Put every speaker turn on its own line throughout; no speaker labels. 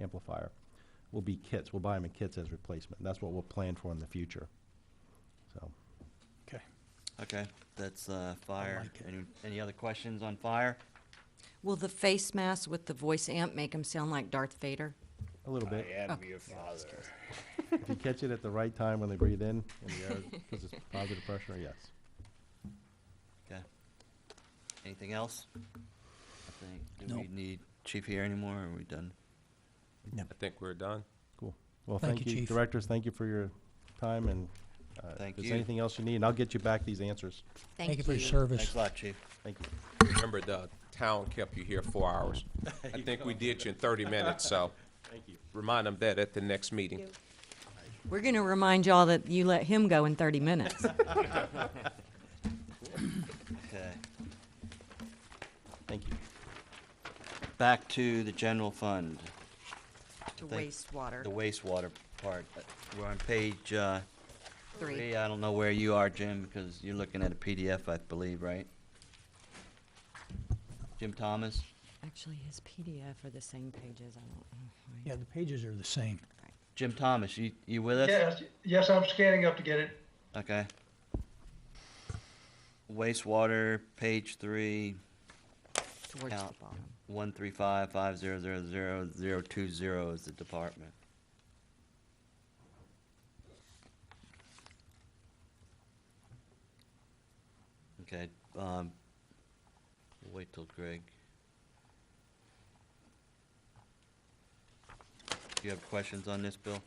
amplifier, will be kits. We'll buy them in kits as replacement. That's what we'll plan for in the future. So,
Okay.
Okay, that's uh, fire.
like it.
Any, any other questions on fire?
Will the face mask with the voice amp make him sound like Darth Vader?
a little bit.
am your father.
If you catch it at the right time when they breathe in, and the air, because it's positive pressure, yes.
Okay. Anything else? I think, do
No.
we need chief here anymore, or are we done?
I think we're done.
Cool. Well,
Thank
thank
you,
you,
Chief.
directors, thank you for your time, and uh,
Thank
If
you.
there's anything else you need, and I'll get you back these answers.
Thank you for your service.
Thanks a lot, chief.
Thank you.
Remember, the town kept you here four hours. I think we did you in thirty minutes, so
Thank you.
remind them that at the next meeting.
We're going to remind y'all that you let him go in 30 minutes.
Okay.
Thank you.
Back to the general fund,
To
Thank-
wastewater,
the wastewater part. Uh, We're on page uh,
three.
three. I don't know where you are, Jim, because you're looking at a PDF, I believe, right? Jim Thomas?
Actually, his PDF are the same pages. I don't know. why.
Yeah, the pages are the same.
Jim Thomas, you, you with us?
Yes, yes, I'm scanning up to get it.
Okay. Wastewater, page three,
Towards
Count.
the bottom.
one three five five zero zero zero zero two zero is the department. Okay, um, we'll wait till Greg. Do you have questions on this, Bill,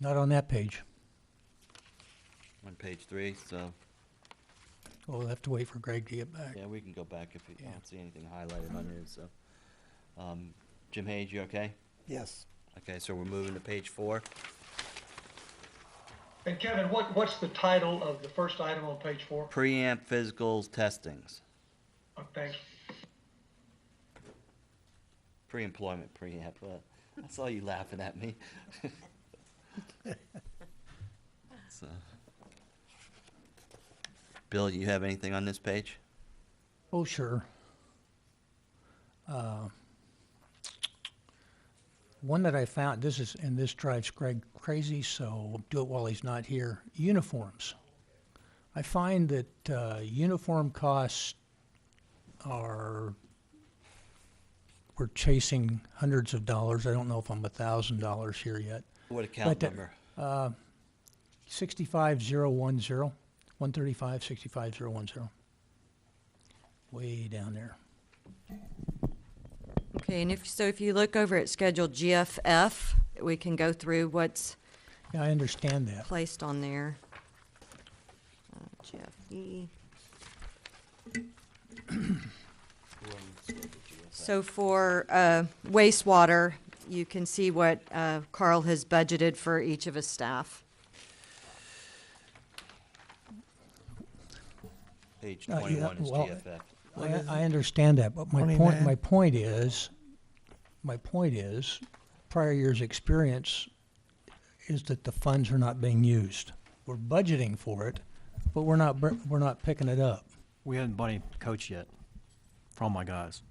Not on that page.
on page three, so?
We'll have to wait for Greg to get back.
Yeah, we can go back if you
Yeah.
don't see anything highlighted on it, so. Um, Jim Hayes, you okay?
Yes.
Okay, so we're moving to page four.
And Kevin, what, what's the title of the first item on page four?
Preamp physicals testings,
Uh, Thanks.
pre-employment preamp. uh, I saw you laughing at me. So, Bill, you have anything on this page?
Oh, sure. Uh, One that I found, this is, and this drives Greg crazy, so do it while he's not here, uniforms. I find that uh, uniform costs are, we're chasing hundreds of dollars. I don't know if I'm a thousand dollars here yet.
What account
But, uh,
number?
Sixty-five zero one zero, one thirty-five, sixty-five zero one zero. Way down there.
Okay, and if, so if you look over at Schedule GFF, we can go through what's
Yeah, I understand that.
placed on there. Uh, GFE. So for uh, wastewater, you can see what uh, Carl has budgeted for each of his staff.
Page
uh, yeah,
twenty-one is
well,
GFF.
I, I understand that, but my
Money
point,
man.
my point is, my point is, prior year's experience is that the funds are not being used. We're budgeting for it, but we're not, br- we're not picking it up,
We haven't bought any coats yet for all my guys.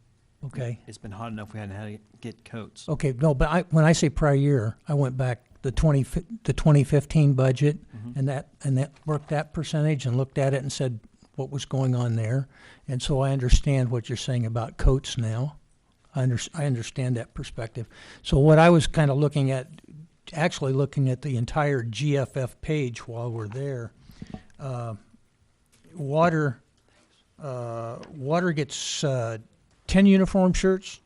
okay?
It's been hot enough we hadn't had to get coats.
Okay, no, but I, when I say prior year, I went back the twenty, fi- the twenty fifteen budget and that, and that, worked that percentage and looked at it and said what was going on there. And so I understand what you're saying about coats now. I under, I understand that perspective. So what I was kind of looking at, actually looking at the entire GFF page while we're there, uh, water, uh, water gets, uh, ten uniform shirts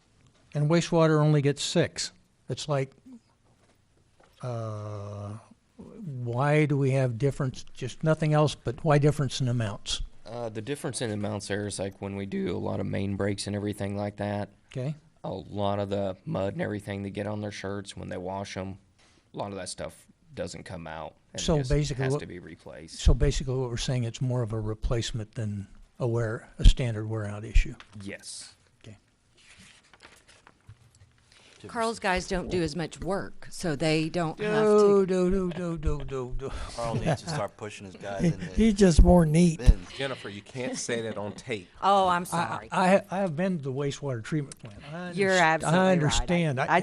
and wastewater only gets six. It's like, uh, why do we have difference, just nothing else, but why difference in amounts?
Uh, the difference in amounts there is like when we do a lot of main breaks and everything like that,
Okay,
a lot of the mud and everything they get on their shirts when they wash them, a lot of that stuff doesn't come out. And
So
just
basically
has
what-
to be replaced.
so basically what we're saying, it's more of a replacement than a wear, a standard wear out issue.
yes.
Okay.
Carl's guys don't do as much work, so they don't have
No,
to.
no, no, no, no, no, no.
Carl needs to start pushing his guys in the
He's just more neat.
bins.
Jennifer, you can't say that on tape.
Oh, I'm
I,
sorry.
I, I have been to the wastewater treatment plant. I
You're
underst-
absolutely right. I-
I understand.
I